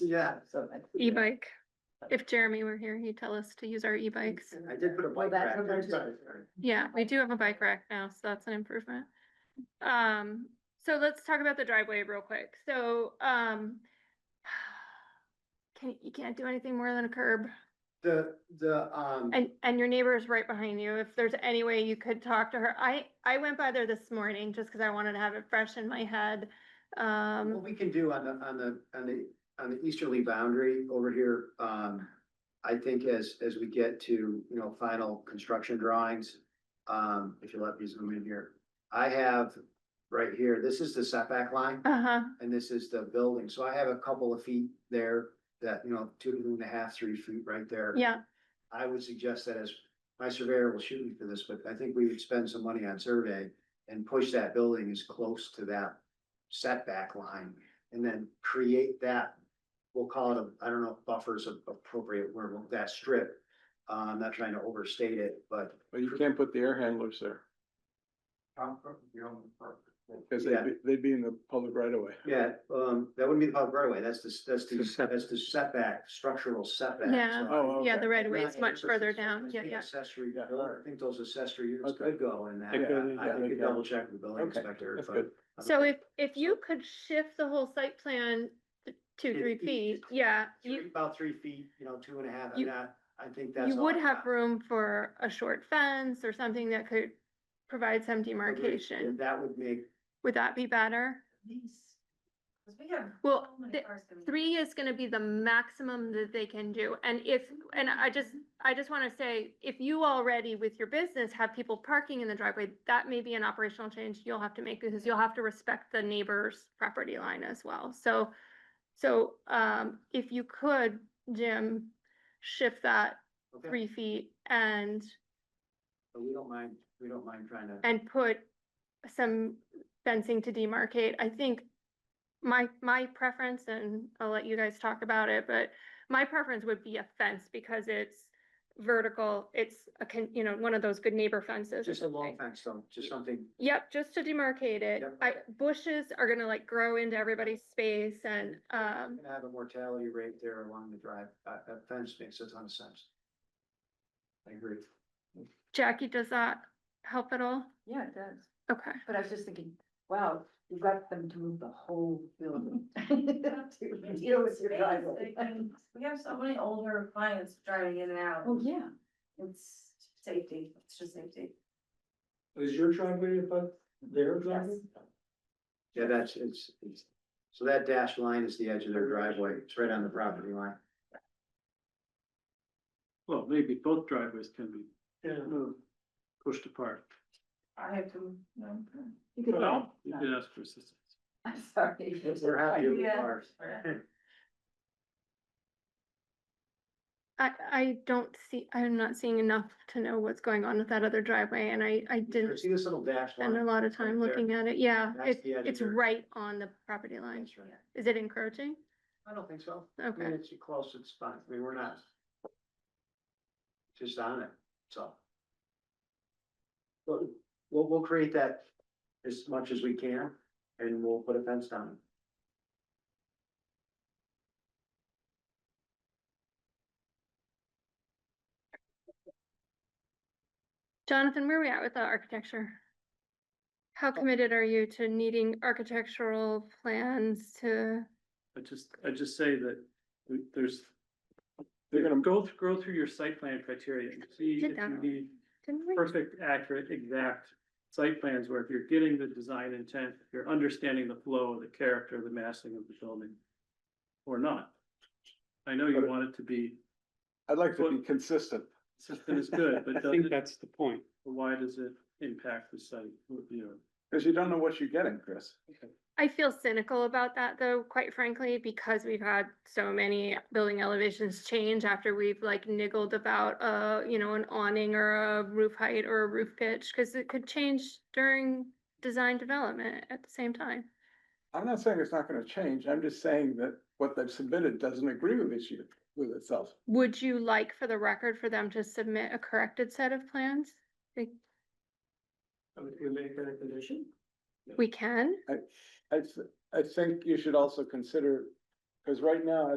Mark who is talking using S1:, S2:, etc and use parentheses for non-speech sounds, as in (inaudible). S1: Yeah.
S2: So I-
S3: E-bike. If Jeremy were here, he'd tell us to use our e-bikes.
S1: I did put a
S2: Well,
S1: bike
S2: that's
S1: rack.
S2: what
S1: there,
S2: I'm
S1: so-
S3: Yeah, we do have a bike rack now, so that's an improvement. Um, so let's talk about the driveway real quick. So, um, (sighs) can, you can't do anything more than a curb.
S1: The, the, um,
S3: And, and your neighbor is right behind you. If there's any way you could talk to her. I, I went by there this morning just because I wanted to have it fresh in my head.
S1: what
S3: Um,
S1: we can do on the, on the, on the, on the easterly boundary over here, um, I think as, as we get to, you know, final construction drawings, um, if you let me zoom in here, I have right here, this is the setback line.
S3: uh-huh,
S1: and this is the building, so I have a couple of feet there that, you know, two and a half, three feet right there.
S3: yeah.
S1: I would suggest that as, my surveyor will shoot me for this, but I think we would spend some money on survey and push that building as close to that setback line and then create that, we'll call it a, I don't know, if buffer is an appropriate word, that strip. Uh, I'm not trying to overstate it, but.
S4: But you can't put the air handlers there, because they'd
S1: Yeah.
S4: be, they'd be in the public right of way.
S1: Yeah, um, that wouldn't be the public right away, that's the, that's
S4: The
S1: the,
S4: setback.
S1: that's the setback, structural setback.
S3: Yeah.
S1: so I-
S4: Oh,
S3: Yeah,
S4: okay.
S3: the right of way
S1: Yeah,
S3: is much
S1: it's a-
S3: further
S1: it's a-
S3: down.
S1: it's
S3: Yeah,
S1: an
S3: yeah.
S1: Accessory,
S4: Yeah,
S1: building.
S4: alright.
S1: I think those accessory units
S4: Okay.
S1: could go in that.
S4: They could,
S1: I
S4: yeah,
S1: think
S4: they
S1: you
S4: can.
S1: double check with the building
S4: Okay,
S1: inspector.
S4: that's
S1: but-
S4: good.
S3: So if, if you could shift the whole site plan th- two,
S1: It-
S3: three
S1: it-
S3: feet, yeah,
S1: Three-
S3: you,
S1: About three feet, you know, two and a half,
S3: You-
S1: and I, I think that's.
S3: you
S1: all
S3: would
S1: I
S3: have
S1: got.
S3: room for a short fence or something that could provide
S1: I
S3: some
S1: would-
S3: demarcation.
S1: That would make,
S3: Would that be better?
S2: Cause we have.
S3: Well,
S2: so many
S3: the-
S2: cars coming in.
S3: three is gonna be the maximum that they can do, and if, and I just, I just wanna say, if you already with your business have people parking in the driveway, that may be an operational change you'll have to make, because you'll have to respect the neighbor's property line as well, so, so, um, if you could, Jim, shift that
S1: okay,
S3: three feet and,
S1: but we don't mind, we don't mind trying to.
S3: and put some fencing to demarcate, I think my, my preference, and I'll let you guys talk about it, but my preference would be a fence because it's vertical, it's a, con- you know, one of those good neighbor fences. or
S1: Just a long
S3: something.
S1: fence, so, just something,
S3: Yep, just to demarcate it.
S1: Yep.
S3: I, bushes are gonna like grow into everybody's space and, um,
S1: we're gonna have a mortality rate there along the drive, uh, a fence makes a ton of sense. I agree.
S3: Jackie, does that help at all?
S2: Yeah, it does.
S3: Okay,
S2: But I was just thinking, wow, you got them to move the whole building. (laughs) to Deal with your
S5: space,
S2: driveway.
S5: I mean, We have so many older clients driving in and out.
S2: (laughs) Oh, yeah.
S5: It's safety, it's just safety.
S6: Is your driveway above their driveway?
S1: Yeah, that's, it's, it's, so that dashed line is the edge of their driveway, it's right on the property line.
S7: Well, maybe both driveways can be
S6: Yeah.
S7: moved, pushed apart.
S5: I have to, no.
S2: You could.
S7: Well, You could ask for assistance.
S2: I'm sorry.
S1: We're happy with (clears throat)
S5: Yeah.
S1: ours.
S3: I, I don't see, I'm not seeing enough to know what's going on with that other driveway and I, I didn't
S1: See this little dash
S3: spend a
S1: line?
S3: lot of time
S1: right there.
S3: looking at it, yeah,
S1: That's
S3: it's,
S1: the edge of
S3: it's
S1: your-
S3: right on the property line.
S1: That's right.
S3: Is it encroaching?
S1: I don't think so. I mean,
S3: Okay,
S1: it's close, it's fine. I mean, we're not. Just on it, so. But we'll, we'll create that as much as we can and we'll put a fence down.
S3: Jonathan, where are we at with the architecture? How committed are you to needing architectural plans to,
S7: I just, I just say that we- there's.
S4: They're gonna-
S7: Go, th- go through your site plan criteria and see
S3: Did
S7: if
S3: that
S7: you
S3: already.
S7: need
S3: didn't we?
S7: perfect, accurate, exact site plans where if you're getting the design intent, if you're understanding the flow, the character, the massing of the building. Or not. I know you
S4: But-
S7: want it to be,
S4: I'd like to be consistent.
S7: system is good,
S8: (laughs)
S7: but
S8: I think
S7: does it-
S8: that's the point.
S7: why does it impact the site, you know?
S4: Cause you don't know what you're getting, Chris.
S3: I feel cynical about that though, quite frankly, because we've had so many building elevations change after we've like niggled about uh, you know, an awning or a roof height or a roof pitch, because it could change during design development at the same time.
S4: I'm not saying it's not gonna change, I'm just saying that what they've submitted doesn't agree with issue, with itself.
S3: Would you like for the record for them to submit a corrected set of plans?
S6: We make that a condition?
S3: We can?
S4: I, th- I think you should also consider, cause right now, as